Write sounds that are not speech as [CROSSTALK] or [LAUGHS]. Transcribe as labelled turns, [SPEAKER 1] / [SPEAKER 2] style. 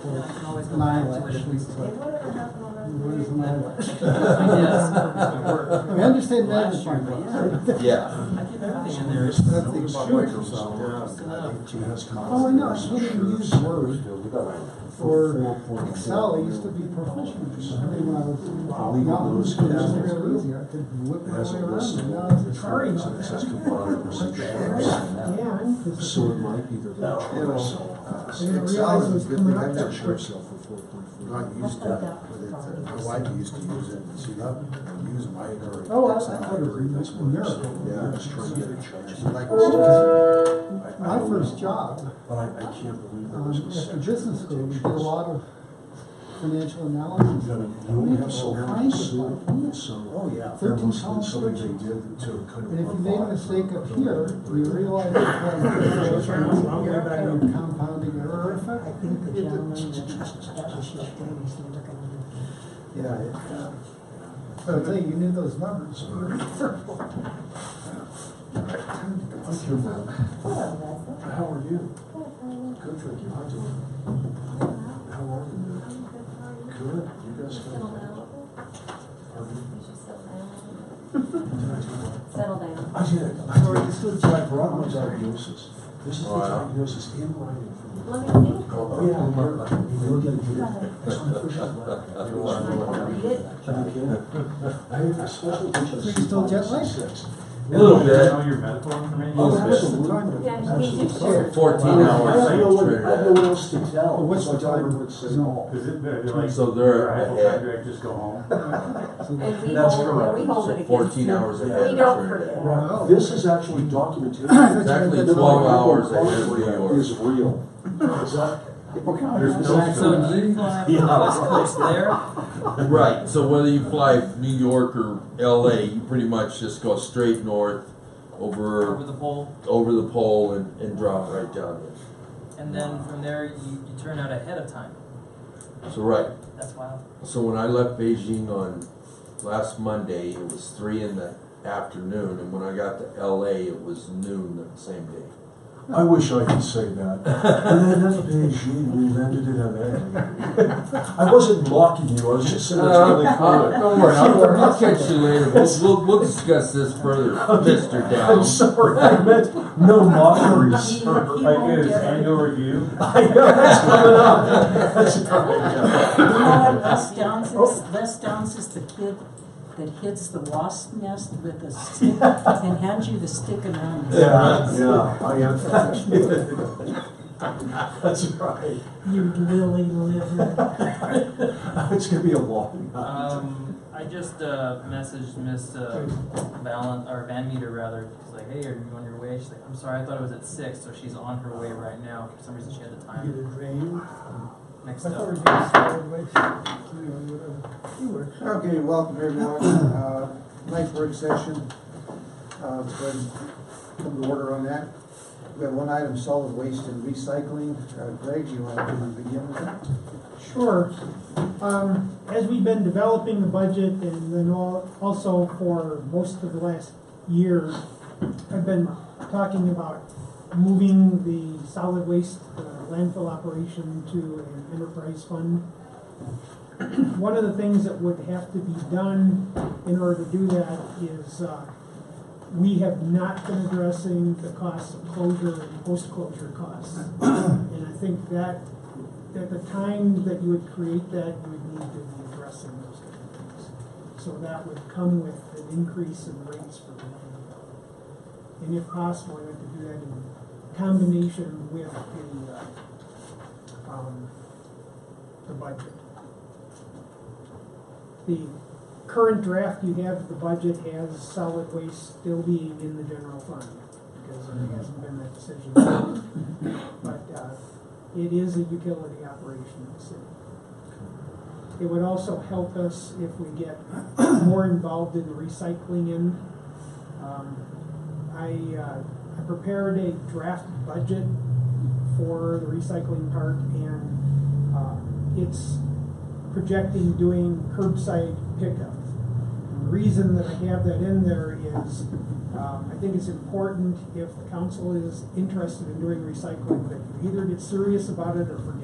[SPEAKER 1] I can always go back to it
[SPEAKER 2] mileage.
[SPEAKER 1] if we.
[SPEAKER 2] What is mileage?
[SPEAKER 1] [LAUGHS] Yes.
[SPEAKER 2] We understand that
[SPEAKER 1] Last year,
[SPEAKER 2] part.
[SPEAKER 1] but
[SPEAKER 3] Yeah.
[SPEAKER 1] I get everything in there.
[SPEAKER 2] That's the insurance. Oh, I know, I shouldn't use the word for Excel, I used to be proficient. I mean, when I was, now I'm just gonna use it real easy, I could whip my way around, it. now it's a hurry.
[SPEAKER 4] Yeah, I'm just-
[SPEAKER 5] So it might be their.
[SPEAKER 2] uh,
[SPEAKER 4] I didn't realize it was coming up that quick.
[SPEAKER 5] Not used to it, but it's, uh, my wife used to use it, and she'd up and use my.
[SPEAKER 2] Oh, I, I thought it was a miracle.
[SPEAKER 5] Yeah. Just trying to get it charged. She liked it.
[SPEAKER 2] My first job,
[SPEAKER 5] But I, I can't believe there
[SPEAKER 2] um,
[SPEAKER 5] was a
[SPEAKER 2] after
[SPEAKER 5] section.
[SPEAKER 2] business school, we did a lot of financial analysis.
[SPEAKER 5] You know, you
[SPEAKER 2] We
[SPEAKER 5] only
[SPEAKER 2] had
[SPEAKER 5] have so
[SPEAKER 2] all
[SPEAKER 5] many,
[SPEAKER 2] kinds of
[SPEAKER 5] so,
[SPEAKER 2] them.
[SPEAKER 5] so. Oh, yeah. There
[SPEAKER 2] Thirteen
[SPEAKER 5] must have been
[SPEAKER 2] pound
[SPEAKER 5] something they
[SPEAKER 2] switches.
[SPEAKER 5] did to kind of.
[SPEAKER 2] And if you made a
[SPEAKER 5] provide
[SPEAKER 2] mistake up
[SPEAKER 5] for
[SPEAKER 2] here,
[SPEAKER 5] the-
[SPEAKER 2] you realize it was
[SPEAKER 1] [LAUGHS]
[SPEAKER 4] I'll get it back
[SPEAKER 2] a
[SPEAKER 4] up.
[SPEAKER 2] compounding error effect.
[SPEAKER 4] I think the gentleman
[SPEAKER 5] [LAUGHS]
[SPEAKER 4] that that was his thing, he's looking at it.
[SPEAKER 2] Yeah. it, uh, So I'll tell you, you knew those numbers.
[SPEAKER 5] Oh, Thank you, ma'am. How are you? Good, thank you. How doing? How are you? ma'am? Good, you guys good? Pardon? Did I do well?
[SPEAKER 6] Settle down.
[SPEAKER 5] I did, I already, this is, I brought my diagnosis. This is the diagnosis in writing from the.
[SPEAKER 6] Let me see.
[SPEAKER 5] Oh, yeah. You're gonna do it. It's my first
[SPEAKER 6] Can I
[SPEAKER 5] one.
[SPEAKER 6] read it?
[SPEAKER 5] Thank you. I have a special.
[SPEAKER 2] So you still jet lagged?
[SPEAKER 7] A little bit. Know your medical information?
[SPEAKER 5] Oh,
[SPEAKER 7] Little bit.
[SPEAKER 5] absolutely.
[SPEAKER 6] Yeah, you need to
[SPEAKER 5] Absolutely.
[SPEAKER 6] share.
[SPEAKER 3] Fourteen
[SPEAKER 5] I don't know what, I don't know
[SPEAKER 3] hours.
[SPEAKER 5] what else to tell.
[SPEAKER 2] But what's
[SPEAKER 5] So I
[SPEAKER 2] the
[SPEAKER 5] tell
[SPEAKER 2] time?
[SPEAKER 5] everyone to say,
[SPEAKER 2] Oh, No.
[SPEAKER 7] Is it, they're like.
[SPEAKER 3] So they're
[SPEAKER 7] "All right, well,
[SPEAKER 3] ahead.
[SPEAKER 7] Patrick, Just go home.
[SPEAKER 6] And we
[SPEAKER 3] That's
[SPEAKER 6] hold,
[SPEAKER 3] correct.
[SPEAKER 6] we hold it against.
[SPEAKER 3] Fourteen
[SPEAKER 6] them.
[SPEAKER 3] hours
[SPEAKER 5] We
[SPEAKER 3] ahead.
[SPEAKER 6] We
[SPEAKER 3] that's
[SPEAKER 6] don't
[SPEAKER 3] where it is.
[SPEAKER 6] forget.
[SPEAKER 2] Wow.
[SPEAKER 5] This is actually
[SPEAKER 3] [COUGHS]
[SPEAKER 5] documentation.
[SPEAKER 3] Exactly 12 hours ahead of yours.
[SPEAKER 5] Is real. Is that?
[SPEAKER 3] There's no-
[SPEAKER 1] So
[SPEAKER 2] [LAUGHS]
[SPEAKER 1] do you fly from the west coast there?
[SPEAKER 3] Right, so whether you fly New York or LA, you pretty much just go straight north
[SPEAKER 1] Over
[SPEAKER 3] over,
[SPEAKER 1] the pole,
[SPEAKER 3] over the pole and, and drop right down
[SPEAKER 1] and then from there you, you turn out ahead of time.
[SPEAKER 3] there. So right,
[SPEAKER 1] That's wild.
[SPEAKER 3] So when I left Beijing on last Monday, it was three in the afternoon, and when I got to LA, it was noon that same day.
[SPEAKER 5] I wish I could say
[SPEAKER 2] [LAUGHS]
[SPEAKER 5] that. And then that day, she, we landed in LA. I wasn't mocking you, I was just saying it's really
[SPEAKER 2] Uh-huh.
[SPEAKER 3] Uh,
[SPEAKER 5] cool.
[SPEAKER 3] don't worry, I'll, I'll catch you later. We'll, we'll, we'll discuss this further, Mister
[SPEAKER 5] I'm
[SPEAKER 3] Down.
[SPEAKER 5] sorry, I meant no
[SPEAKER 2] [LAUGHS]
[SPEAKER 5] mockeries.
[SPEAKER 7] Like, is annual review?
[SPEAKER 5] I know, that's coming up. That's coming up.
[SPEAKER 8] You know what Les Downs is? Les Downs is the kid that hits the wasp nest with a stick and hands you the stick and runs.
[SPEAKER 5] Yeah, yeah, I am. That's right.
[SPEAKER 8] You lily
[SPEAKER 5] [LAUGHS]
[SPEAKER 8] liver.
[SPEAKER 5] It's gonna be a long night.
[SPEAKER 2] Uh,
[SPEAKER 1] Um, I just uh, messaged Miss uh, Valen or Van Meter rather. She's like, "Hey, are you on your way?" She's like, "I'm sorry, I thought it was at 6, so she's on her way right now. For some reason, she had the
[SPEAKER 2] Get
[SPEAKER 1] time
[SPEAKER 2] it drained.
[SPEAKER 1] next
[SPEAKER 2] I thought we
[SPEAKER 1] up.
[SPEAKER 2] were getting started late. Anyway, whatever. You were.
[SPEAKER 9] Okay, welcome everyone. Uh, Nice work session. Uh, Go ahead and Come to order on that. We have one item, solid waste and recycling. Uh, Greg, you want to begin with that?
[SPEAKER 4] Sure. Um, as we've been developing the budget and then all, also for most of the last year, I've been talking about moving the solid waste uh, landfill operation to an enterprise fund. One of the things that would have to be done in order to do that is, uh, we have not been addressing the costs of closure and post-closure costs. And I think that at the time that you would create that, you would need to be addressing those kind of things. So that would come with an increase in rates for the landfill. And if possible, I'd like to do that in combination with the, uh, um, the budget. The current draft you have, of the budget has solid waste still being in the general fund, because there hasn't been that decision. But, uh, it is a utility operation in the city. It would also help us if we get [CLEARS THROAT] more involved in the recycling end. Um, I, uh, I prepared a draft budget for the recycling part and, uh, it's projecting doing curbside pickup. And The reason that I have that in there is, um, I think it's important if the council is interested in doing recycling, that you either get serious about it or forget